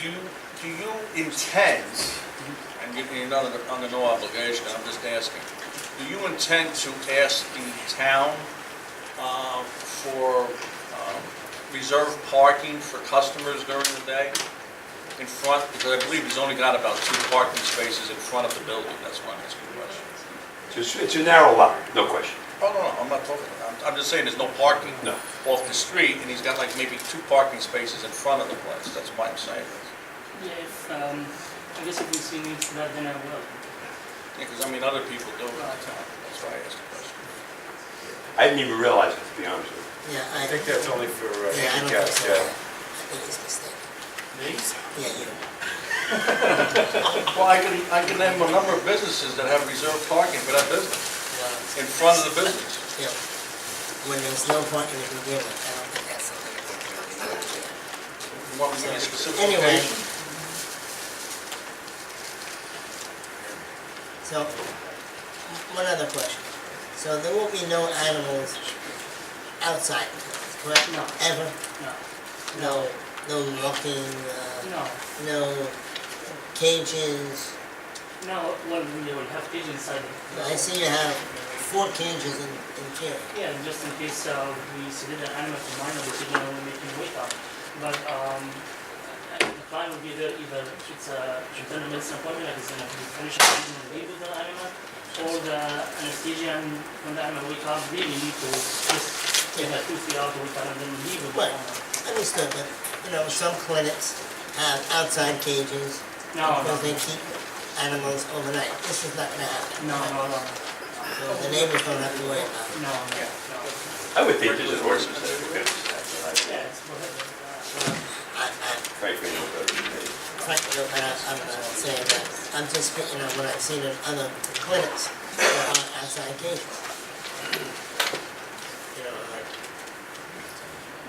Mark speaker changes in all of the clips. Speaker 1: Do, do you intend, and you- you're not under, under no obligation, I'm just asking, do you intend to ask the town uh, for um, reserve parking for customers during the day in front, because I believe he's only got about two parking spaces in front of the building, that's why I'm asking the question.
Speaker 2: It's, it's a narrow lot, no question.
Speaker 1: Oh, no, no, I'm not talking, I'm, I'm just saying there's no parking
Speaker 2: No.
Speaker 1: off the street, and he's got like maybe two parking spaces in front of the place, that's why I'm saying this.
Speaker 3: Yeah, if, um, I guess if we see needs for that, then I will.
Speaker 1: Yeah, because I mean, other people do it all the time, that's why I asked the question.
Speaker 2: I didn't even realize it, to be honest with you.
Speaker 4: Yeah,
Speaker 5: I think that's only for uh,
Speaker 4: Yeah, I don't
Speaker 5: handicap,
Speaker 4: think
Speaker 5: yeah.
Speaker 4: so. I think it's mistaken.
Speaker 5: These?
Speaker 4: Yeah, you.
Speaker 1: Well, I can, I can name a number of businesses that have reserved parking for that business, in front of the business.
Speaker 4: Yeah. When there's no parking to begin with, I don't think that's something that they can really do.
Speaker 1: You want me to give you a specific
Speaker 4: Anyway.
Speaker 1: location?
Speaker 4: So, one other question. So there will be no animals outside, the building, correct?
Speaker 3: No.
Speaker 4: Ever?
Speaker 3: No,
Speaker 4: No, no walking, uh,
Speaker 3: no,
Speaker 4: no cages?
Speaker 3: no, well, we would have kids inside. the-
Speaker 4: I see you have four cages in, in here.
Speaker 3: Yeah, just in case, uh, we submit an animal to minor, we should know we can wait up. But, um, I- the plan would be that either it's a internal medicine appointment, like it's gonna be finished, and leave with the animal, or the anesthesia, and when the animal wake up, really need to just take that tooth out, or kind of then leave with the
Speaker 4: Right.
Speaker 3: animal.
Speaker 4: Understood, but, you know, some clinics have outside cages
Speaker 3: No, no,
Speaker 4: because they keep animals overnight. This is not gonna happen.
Speaker 3: no, no, no,
Speaker 4: So the neighbors don't have to worry about it.
Speaker 3: no, no.
Speaker 2: I would think this is horses, because
Speaker 3: Yeah, it's whatever. Uh,
Speaker 4: I, I
Speaker 2: frankly, no better than me.
Speaker 4: frankly don't, I, I'm not saying that. I'm just speaking of what I've seen in other clinics that are outside cages. You know, like,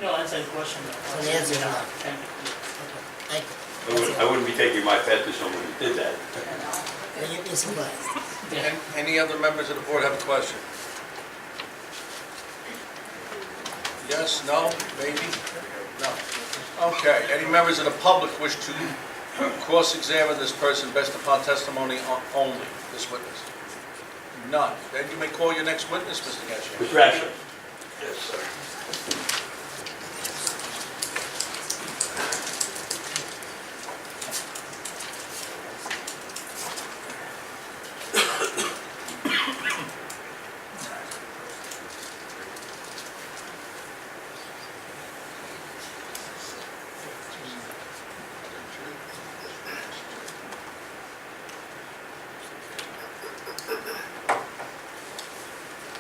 Speaker 3: No, that's a question.
Speaker 4: So the answer is no.
Speaker 3: Thank you.
Speaker 4: okay, thank you.
Speaker 2: I wouldn't, I wouldn't be taking my pet to someone who did that.
Speaker 4: Well, you'd be surprised.
Speaker 3: Yeah.
Speaker 1: An- Any other members of the board have a question? Yes, no, maybe? No. Okay, any members of the public wish to cross-examine this person based upon testimony o- only, this witness? None. Then you may call your next witness, Mr. Gassion.
Speaker 2: Mr. Asher?
Speaker 5: Yes, sir.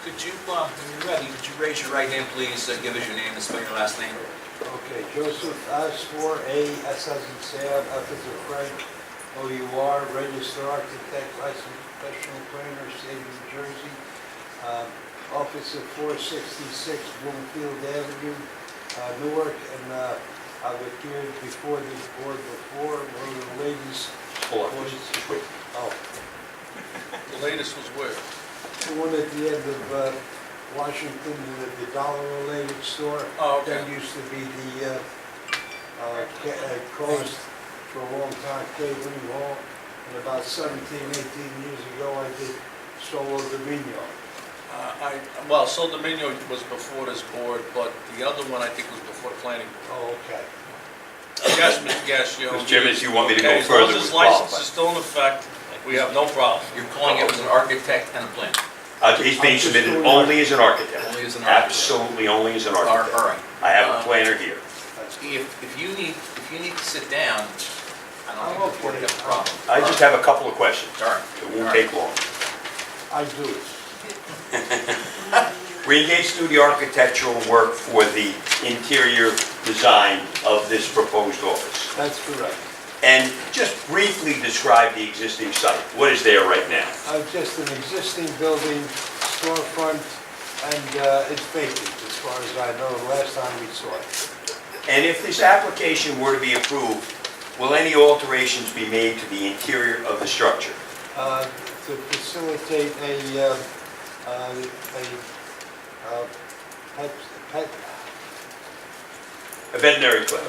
Speaker 6: Could you, uh, when you're ready, could you raise your right hand, please, and give us your name and spell your last name?
Speaker 7: Okay, Joseph Asfor, A, S as in Sam, F as in Frank, O U R, registered architect, licensed professional planner, state of New Jersey. Uh, Office of 466 Bloomfield Avenue, uh, Newark, and uh, I've appeared before this board before, one of the ladies,
Speaker 2: Hold on, just- just wait.
Speaker 7: oh,
Speaker 1: The latest was where?
Speaker 7: the one at the end of uh, Washington, the- the dollar-related store.
Speaker 1: Oh, okay.
Speaker 7: That used to be the, uh, uh, ca- uh, closed for a long time, catering hall. And about 17, 18 years ago, I did Solo Dominion.
Speaker 1: Uh, I, well, Sol Dominio was before this board, but the other one I think was before the planning. board.
Speaker 7: Oh, okay.
Speaker 1: Yes, Mr. Gassion.
Speaker 2: Mr. Chairman, if you want me to
Speaker 1: Okay,
Speaker 2: go
Speaker 1: as long as
Speaker 2: further, we'll
Speaker 1: this license
Speaker 2: qualify.
Speaker 1: is still in effect, we have no problem.
Speaker 6: You're calling him as an architect and a planner?
Speaker 2: Uh, He's being submitted only as an architect.
Speaker 6: Only as an architect.
Speaker 2: Absolutely only as an
Speaker 6: All right,
Speaker 2: architect.
Speaker 6: all right.
Speaker 2: I have a
Speaker 6: Uh,
Speaker 2: planner here.
Speaker 6: If, if you need, if you need to sit down, I
Speaker 7: I'm
Speaker 6: don't think the board
Speaker 7: okay.
Speaker 6: has a problem.
Speaker 2: I just have a couple of questions.
Speaker 6: All right.
Speaker 2: It
Speaker 6: All
Speaker 2: won't
Speaker 6: right.
Speaker 2: take long.
Speaker 7: I do it.
Speaker 2: We engaged through the architectural work for the interior design of this proposed office.
Speaker 7: That's correct.
Speaker 2: And just briefly describe the existing site. What is there right now?
Speaker 7: Uh, Just an existing building, storefront, and uh, it's vacant, as far as I know, last time we saw it.
Speaker 2: And if this application were to be approved, will any alterations be made to the interior of the structure?
Speaker 7: Uh, To facilitate a, uh, uh, a uh, pet, pet
Speaker 2: A veterinary clinic?